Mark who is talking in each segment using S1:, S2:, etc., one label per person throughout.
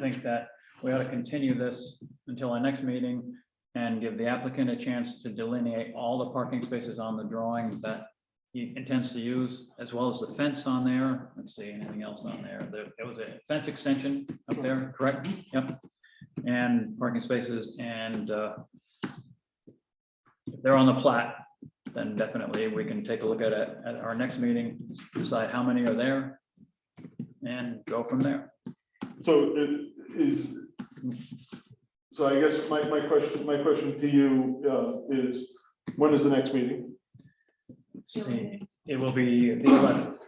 S1: think that we ought to continue this until our next meeting and give the applicant a chance to delineate all the parking spaces on the drawing that he intends to use, as well as the fence on there. Let's see, anything else on there? There, there was a fence extension up there, correct? Yep. And parking spaces and uh, if they're on the plat, then definitely we can take a look at it at our next meeting, decide how many are there and go from there.
S2: So it is, so I guess my, my question, my question to you uh, is, when is the next meeting?
S1: Let's see, it will be the eleventh,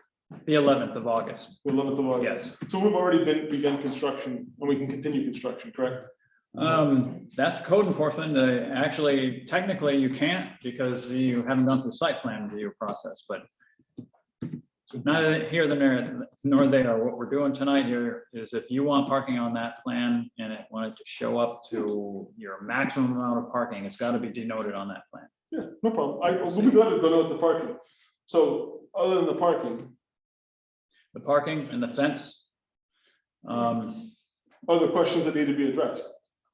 S1: the eleventh of August,
S2: The 11th of August?
S1: Oh, yes.
S2: So we've already been, begun construction and we can continue construction, correct?
S1: Um, that's code enforcement. Uh, Actually, technically, you can't because you haven't gone through site plan review process, but neither here than there, nor there. What we're doing tonight here is if you want parking on that plan and it wanted to show up to your maximum amount of parking, it's got to be denoted on that plan.
S2: Yeah, no problem. I, we've got to denote the parking. So other than the parking,
S1: The parking and the fence. Um,
S2: other questions that need to be addressed?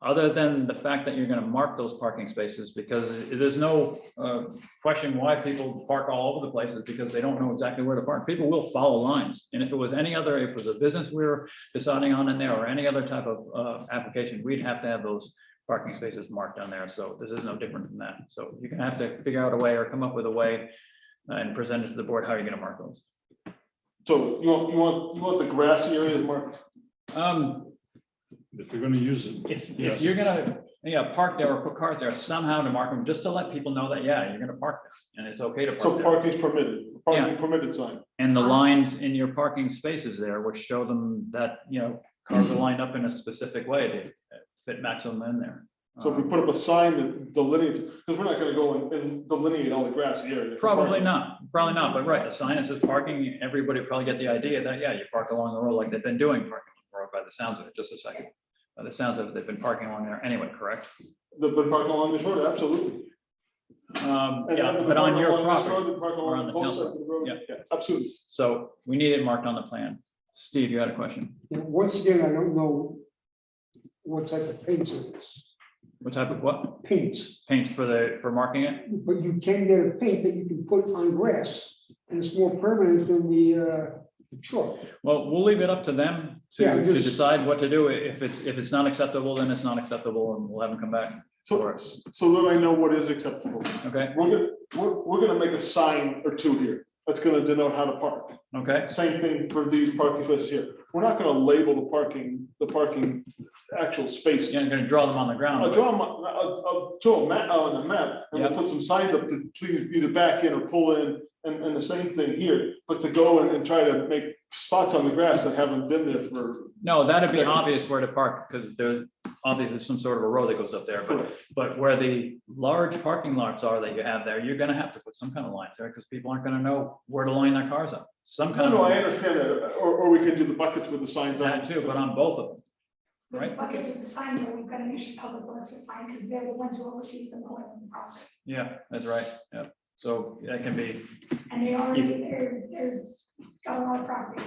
S1: other than the fact that you're gonna mark those parking spaces, because it- there's no uh, question why people park all over the places, because they don't know exactly where to park. People will follow lines, and if it was any other, if it was a business we were deciding on in there, or any other type of uh, application, we'd have to have those parking spaces marked on there, so this is no different from that. So you're gonna have to figure out a way or come up with a way uh, and present it to the board, how you're gonna mark those.
S2: So you want, you want, you want the grassy areas marked?
S1: Um,
S3: If you're gonna use it.
S1: If, if
S3: Yes.
S1: you're gonna, yeah, park there or put cars there somehow to mark them, just to let people know that, yeah, you're gonna park there and it's okay to
S2: So
S1: park there.
S2: parking is permitted, parking permitted sign.
S1: And the lines in your parking spaces there, which show them that, you know, cars are lined up in a specific way to fit maximum in there.
S2: So if we
S1: Um,
S2: put up a sign that delineates, because we're not gonna go and- and delineate all the grassy areas.
S1: Probably not, probably not, but right, a sign that says parking, everybody probably get the idea that, yeah, you park along the road like they've been doing parking along the road by the sounds of it, just a second. By the sounds of it, they've been parking along there anyway, correct?
S2: The, but parking along this road, absolutely.
S1: Um,
S2: And-
S1: yeah,
S2: and the
S1: but on
S2: parking
S1: your
S2: along this
S1: property.
S2: road, the parking
S1: or
S2: along
S1: on the
S2: both
S1: town
S2: sides of the road,
S1: yeah.
S2: yeah, Absolutely.
S1: So we need it marked on the plan. Steve, you had a question?
S4: And once again, I don't know what type of paint it is,
S1: What type of what?
S4: paint,
S1: Paint for the, for marking it?
S4: but you can get a paint that you can put on grass, and it's more permanent than the uh, chalk.
S1: Well, we'll leave it up to them to,
S4: Yeah,
S1: to
S4: just-
S1: decide what to do. If it's, if it's not acceptable, then it's not acceptable and we'll have them come back for
S2: So,
S1: us.
S2: so that I know what is acceptable.
S1: Okay,
S2: We're gonna, we're, we're gonna make a sign or two here that's gonna denote how to park.
S1: okay,
S2: Same thing for these parking spaces here. We're not gonna label the parking, the parking actual space.
S1: you're not gonna draw them on the
S2: I'll
S1: ground.
S2: draw, them on- I'll, I'll draw a map, uh, on a map, and we'll
S1: Yeah.
S2: put some signs up to please either back in or pull in, and, and the same thing here, but to go and, and try to make spots on the grass that haven't been there for.
S1: No, that'd be obvious where to park, because there's obviously some sort of a road that goes up there, but, but where the large parking lots are that you have there, you're gonna have to put some kind of lines there, because people aren't gonna know where to line their cars up. Some
S2: No,
S1: kind
S2: no, I
S1: of,
S2: understand that, or, or we can do the buckets with the signs on.
S1: that
S2: it.
S1: too, but on both of them. Right.
S5: Okay, to the signs, and we've got an issue public works with fine, because they're the ones who oversees the mowing of the property.
S1: Yeah, that's right, yeah. So that can be,
S5: And they already, they're, they're got a lot of property.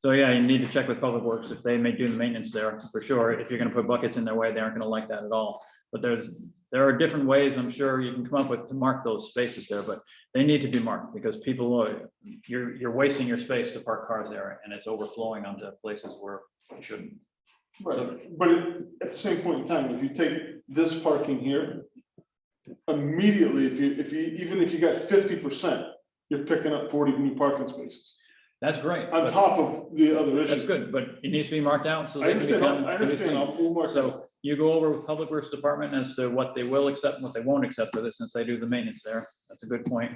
S1: so yeah, you need to check with Public Works if they may do the maintenance there, for sure. If you're gonna put buckets in their way, they aren't gonna like that at all. But there's, there are different ways, I'm sure you can come up with to mark those spaces there, but they need to be marked because people are, you're, you're wasting your space to park cars there and it's overflowing onto places where it shouldn't.
S2: Right, but at the same point in time, if you take this parking here, immediately, if you, if you, even if you got fifty percent, you're picking up forty new parking spaces
S1: That's great.
S2: on
S1: but
S2: top of the other
S1: That's
S2: issues.
S1: good, but it needs to be marked out so they
S2: I
S1: can
S2: understand,
S1: become.
S2: I
S1: can be seen.
S2: understand, I'll full mark it.
S1: So you go over with Public Works Department as to what they will accept and what they won't accept for this, since they do the maintenance there. That's a good point.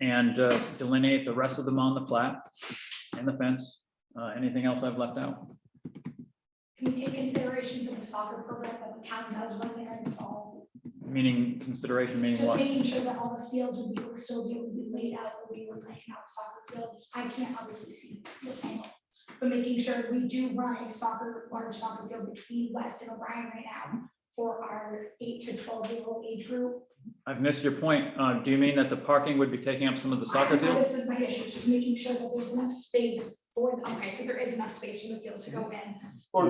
S1: And uh, delineate the rest of them on the plat and the fence. Uh, Anything else I've left out?
S5: Can you take consideration for the soccer program that the town does when they're in the fall?
S1: Meaning consideration, meaning
S5: Just
S1: what?
S5: making sure that all the fields will be, will still be, will be laid out, will be playing out soccer fields. I can't obviously see this angle. But making sure we do run a soccer, large soccer field between West and O'Brien right now for our eight to twelve year old age group.
S1: I've missed your point. Uh, Do you mean that the parking would be taking up some of the soccer
S5: I- I-
S1: field?
S5: This is my issue, just making sure that there's enough space for, okay, so there is enough space for the field to go in.